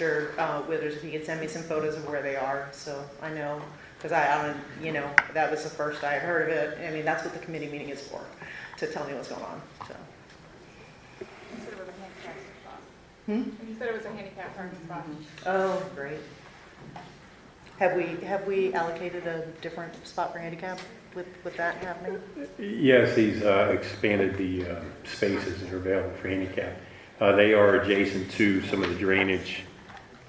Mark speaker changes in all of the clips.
Speaker 1: Mr. uh, Withers, if he could send me some photos of where they are, so I know, because I, I don't, you know, that was the first I heard of it. I mean, that's what the committee meeting is for, to tell me what's going on, so.
Speaker 2: You said it was a handicap spot.
Speaker 1: Hmm?
Speaker 2: You said it was a handicap parking spot.
Speaker 1: Oh, great. Have we, have we allocated a different spot for handicap with, with that happening?
Speaker 3: Yes, he's uh, expanded the uh, spaces that are available for handicap. Uh, They are adjacent to some of the drainage,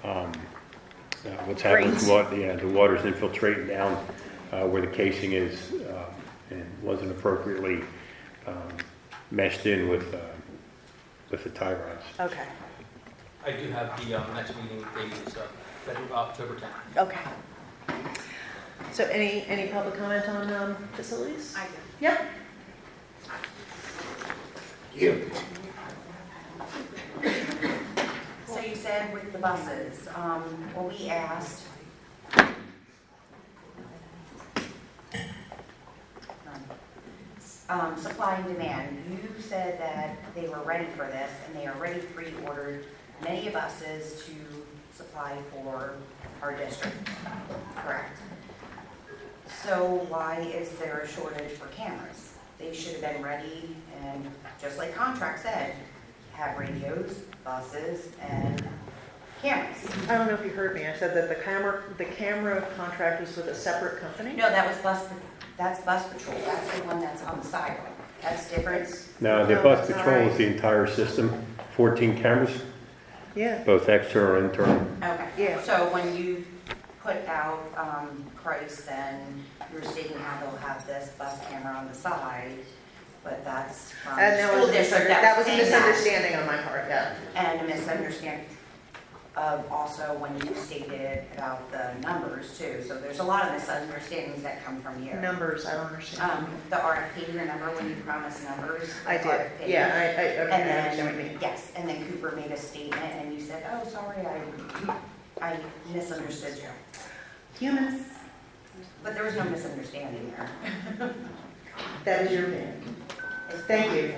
Speaker 3: um, uh, what's happening,
Speaker 1: Drains.
Speaker 3: what, yeah, the water's infiltrating down uh, where the casing is uh, and wasn't appropriately um, meshed in with, uh, with the tie rods.
Speaker 1: Okay,
Speaker 4: I do have the um, next meeting date, so February, October 10th.
Speaker 1: okay. So any, any public comment on um, facilities?
Speaker 2: I do.
Speaker 1: Yep.
Speaker 5: So you said with the buses, um, well, we asked. Um, supply and demand, you said that they were ready for this and they already pre-ordered many buses to supply for our district, correct? So why is there a shortage for cameras? They should have been ready and, just like contract said, have radios, buses, and cameras.
Speaker 1: I don't know if you heard me, I said that the camera, the camera contract was with a separate company?
Speaker 5: No, that was bus, that's bus patrol, that's the one that's on the sidewalk, that's different.
Speaker 3: Now, the
Speaker 1: No,
Speaker 3: bus
Speaker 1: that's all
Speaker 3: patrol
Speaker 1: right.
Speaker 3: is the entire system, 14 cameras,
Speaker 1: Yeah,
Speaker 3: both external and internal.
Speaker 5: Okay.
Speaker 1: Yeah.
Speaker 5: So when you put out, um, Christ, then you're stating how they'll have this bus camera on the side, but that's from
Speaker 1: and that
Speaker 5: school
Speaker 1: was, a
Speaker 5: district.
Speaker 1: misunderstanding- that was a
Speaker 5: saying that.
Speaker 1: misunderstanding on my part, yeah.
Speaker 5: And a misunderstanding of also when you stated about the numbers too, so there's a lot of misunderstandings that come from you.
Speaker 1: Numbers, I don't understand.
Speaker 5: Um, the RFP, remember when you promised numbers? the
Speaker 1: I did,
Speaker 5: RFP?
Speaker 1: yeah, I, I, okay,
Speaker 5: And
Speaker 1: I understand what you mean.
Speaker 5: then, yes, and then Cooper made a statement and you said, oh, sorry, I, I misunderstood you.
Speaker 1: Humans.
Speaker 5: But there was no misunderstanding there.
Speaker 1: That is your opinion. Thank you.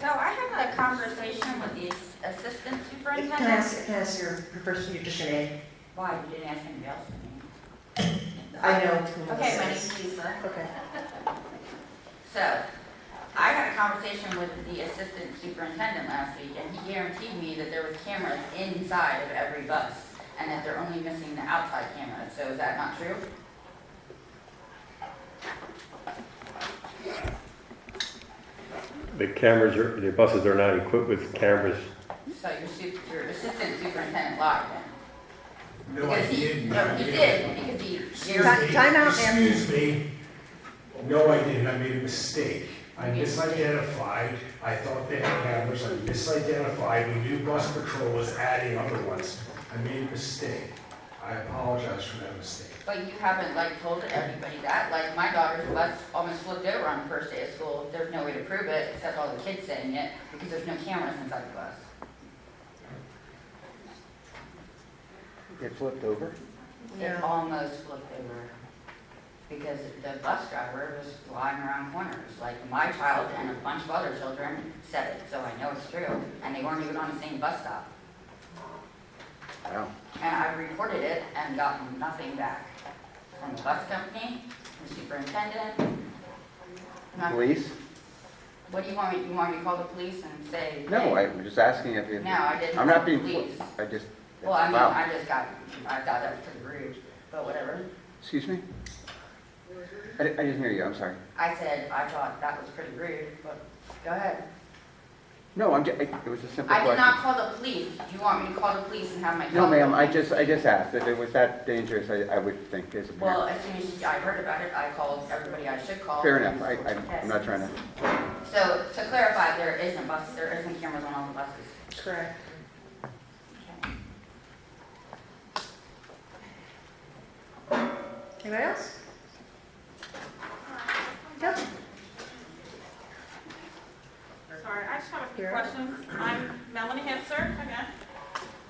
Speaker 6: So I had a conversation with the
Speaker 1: Can
Speaker 6: assistant
Speaker 1: I
Speaker 6: superintendent.
Speaker 1: ask, can I ask your, first, your just your name?
Speaker 6: Why, you didn't ask anybody else?
Speaker 1: I know who this
Speaker 6: Okay, my
Speaker 1: is.
Speaker 6: name's Lisa.
Speaker 1: Okay.
Speaker 6: So, I had a conversation with the assistant superintendent last week, and he guaranteed me that there was cameras inside of every bus, and that they're only missing the outside cameras, so is that not true?
Speaker 3: The cameras are, the buses are not equipped with cameras
Speaker 6: So your su- your assistant superintendent lied then?
Speaker 7: No, I
Speaker 6: Because he-
Speaker 7: didn't.
Speaker 6: No, he did, because he
Speaker 7: Excuse
Speaker 6: guaranteed.
Speaker 1: Ti-
Speaker 7: me.
Speaker 1: time out, ma'am.
Speaker 7: Excuse me. No, I didn't. I made a mistake. I
Speaker 6: You made a mistake.
Speaker 7: misidentified. I thought they had cameras. I misidentified. We knew bus patrol was adding other ones. I made a mistake. I apologize for that mistake.
Speaker 6: But you haven't like told everybody that, like my daughter's bus almost flipped over on the first day of school, there's no way to prove it, except all the kids saying it, because there's no cameras inside the bus.
Speaker 8: It flipped over?
Speaker 6: It almost flipped over, because the bus driver was flying around corners, like my child and a bunch of other children said it, so I know it's true, and they weren't even on the same bus stop.
Speaker 8: Wow.
Speaker 6: And I reported it and gotten nothing back from the bus company, from the superintendent. nothing.
Speaker 8: Police?
Speaker 6: What do you want me, you want me to call the police and say?
Speaker 8: No,
Speaker 6: hey,
Speaker 8: I'm just asking if you.
Speaker 6: No, I didn't.
Speaker 8: I'm
Speaker 6: call
Speaker 8: not
Speaker 6: the
Speaker 8: being, fo-
Speaker 6: police.
Speaker 8: I just,
Speaker 6: Well, I mean,
Speaker 8: wow,
Speaker 6: I just got, I thought that was pretty rude, but whatever.
Speaker 8: excuse me? I di- I didn't hear you, I'm sorry.
Speaker 6: I said, I thought that was pretty rude, but go ahead.
Speaker 8: No, I'm, ju- I- it was a simple
Speaker 6: I did not
Speaker 8: question.
Speaker 6: call the police. Do you want me to call the police and have my?
Speaker 8: No,
Speaker 6: call-
Speaker 8: ma'am, I just, I just asked, if it was that dangerous, I, I would think as a
Speaker 6: Well,
Speaker 8: parent.
Speaker 6: as soon as I heard about it, I called everybody I should call.
Speaker 8: Fair enough, I, I'm- I'm not trying to,
Speaker 6: So, to clarify, there isn't bus, there isn't cameras on all the buses.
Speaker 1: Correct. Anybody else? Yep.
Speaker 2: Sorry, I just have a few
Speaker 1: Sure.
Speaker 2: questions. I'm Melanie Henser again.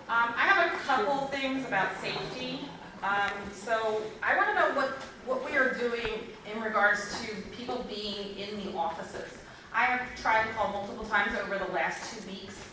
Speaker 2: Um, I have a couple things about safety. Um, so I want to know what, what we are doing in regards to people being in the offices. I have tried to call multiple times over the last two weeks